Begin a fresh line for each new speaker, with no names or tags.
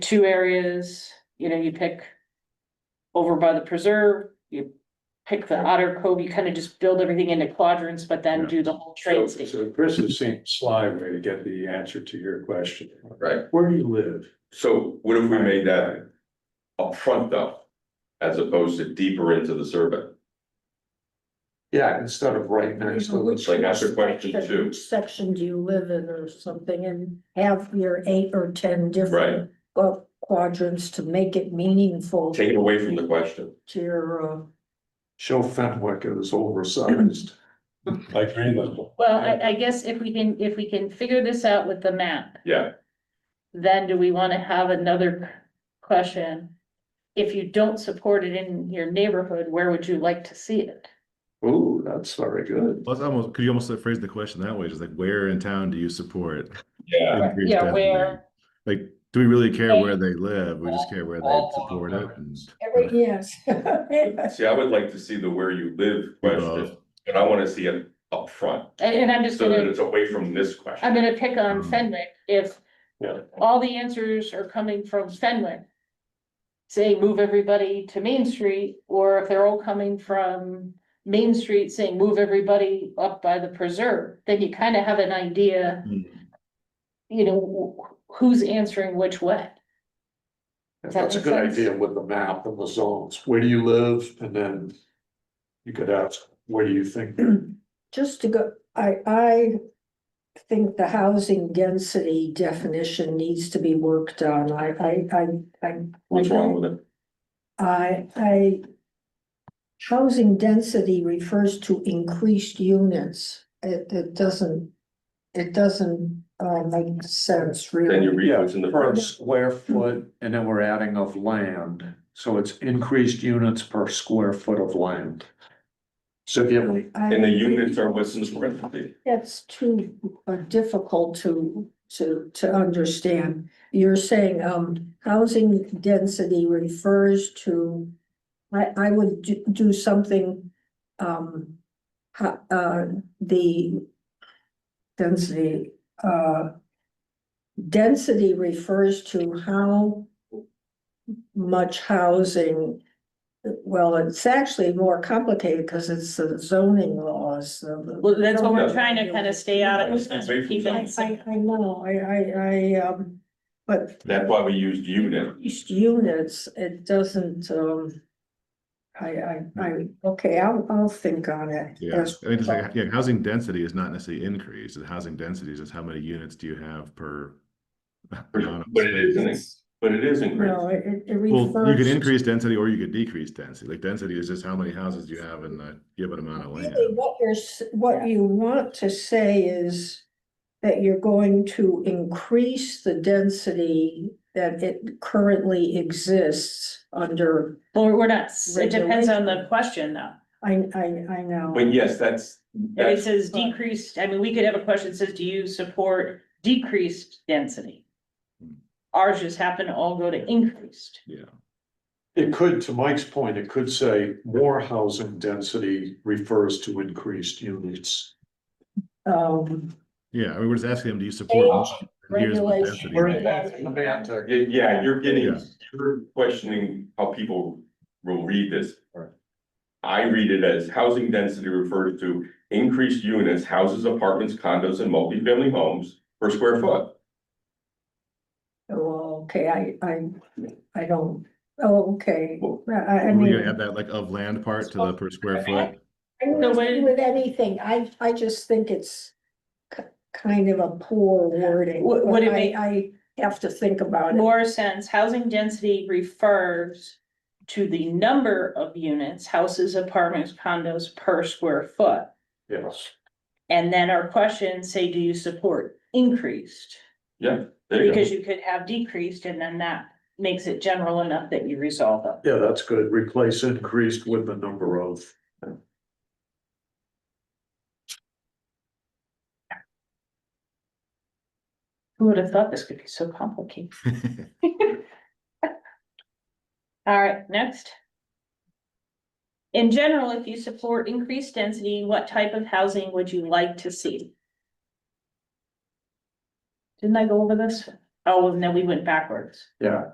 two areas, you know, you pick. Over by the preserve, you pick the Otter Cove, you kind of just build everything into quadrants, but then
Yeah.
do the whole
So
train station.
so Chris is seeing sly way to get the answer to your question.
Right.
Where do you live?
So what if we made that upfront though? As opposed to deeper into the survey?
Yeah, instead of right next to the.
It's like that's a question too.
Which Section do you live in or something and have your eight or ten
Right.
different. qu- Quadrants to make it meaningful
Take it away from the question.
to your, uh,
Show Fenwick is oversized. Like Greenland.
Well, I, I guess if we can, if we can figure this out with the map,
Yeah,
then do we want to have another question? If you don't support it in your neighborhood, where would you like to see it?
Ooh, that's very good.
Well, that's almost could you almost phrase the question that way? Just like, where in town do you support?
yeah.
increased
Yeah,
density?
where
Like, do we really care where they live? We just care where they support it. and-
every, yes.
See, I would like to see the where you live
We
question,
both.
and I wanna see it upfront,
and and I'm just Uh,
so that
gonna
it's away from this
I'm
question.
gonna pick on
Mm.
Fenwick, if
Yeah.
all the answers are coming from Fenwick. Say move everybody to Main Street, or if they're all coming from Main Street saying move everybody up by the preserve, then you kind of have an idea,
Hmm.
you know, wh- who's answering which way. Does that
That's a
make
good
sense?
idea with the map and the zones. Where do you live? And then you could ask, where do you think?
Just to go, I, I think the housing density definition needs to be worked on. I, I, I, I.
What's wrong with it?
I, I. Housing density refers to increased units. It, it doesn't, it doesn't, uh, make sense
Then you
really.
read what's in the
Per
first.
square foot, and then we're adding of land, so it's increased units per square foot of land. So if you have
I-
And the units are what's in the parentheses.
That's too uh, difficult to, to, to understand. You're saying, um, housing density refers to, I, I would do, do something, um, ho- uh, the density, uh, density refers to how much housing well, it's actually more complicated because it's the zoning laws.
Well, that's what we're
Yeah.
trying to kind of stay out of.
Stay away from
keep
that.
I,
it
I,
simple.
I know, I, I, I, um, but
That's why we used unit.
each units, it doesn't, um. I, I, I, okay, I'll, I'll think on it.
Yeah,
That's-
I mean, it's like, yeah, housing density is not necessarily increased. The housing density is just how many units do you have per. amount of
But it is,
space.
an- but it is
No,
increased.
it, it- it
Well, you
refers.
could increase density or you could decrease density. Like density is just how many houses you have in a given amount of land.
Really, what you're, s- what you want to say is that you're going to increase the density that it currently exists under,
Well, we're not, s- it depends on the question though.
I, I, I know.
But yes, that's,
If it
that's,
says decreased, I mean, we could have a question that says, do you support decreased density?
Hmm.
Ours just happen to all go to increased.
Yeah.
It could, to Mike's point, it could say more housing density refers to increased units.
Um,
Yeah, I mean, we're just asking them, do you support?
Age,
and here's what
regulation.
density is.
semantic.
yeah, yeah, you're getting,
Yeah.
you're questioning how people will read this. I read it as housing density refers to increased units, houses, apartments, condos, and multifamily homes per square foot.
well, Oh, okay, I, I, I don't, oh, okay, I, I I
We're gonna add
mean.
that like of land part to the per square foot.
I don't
No way.
agree with anything, I, I just think it's ki- kind of a poor wording.
Would- would it
but I-
make-
I have to think about it.
More sense, housing density refers to the number of units, houses, apartments, condos per square foot.
Yes.
And then our question say, do you support increased?
There you go.
Because you could have decreased and then that makes it general enough that you resolve it.
Yeah, that's good. Replace increased with the number of.
Who would have thought this could be so complicated? All right, next. In general, if you support increased density, what type of housing would you like to see? Didn't I go over this? Oh, no, we went backwards.
Yeah.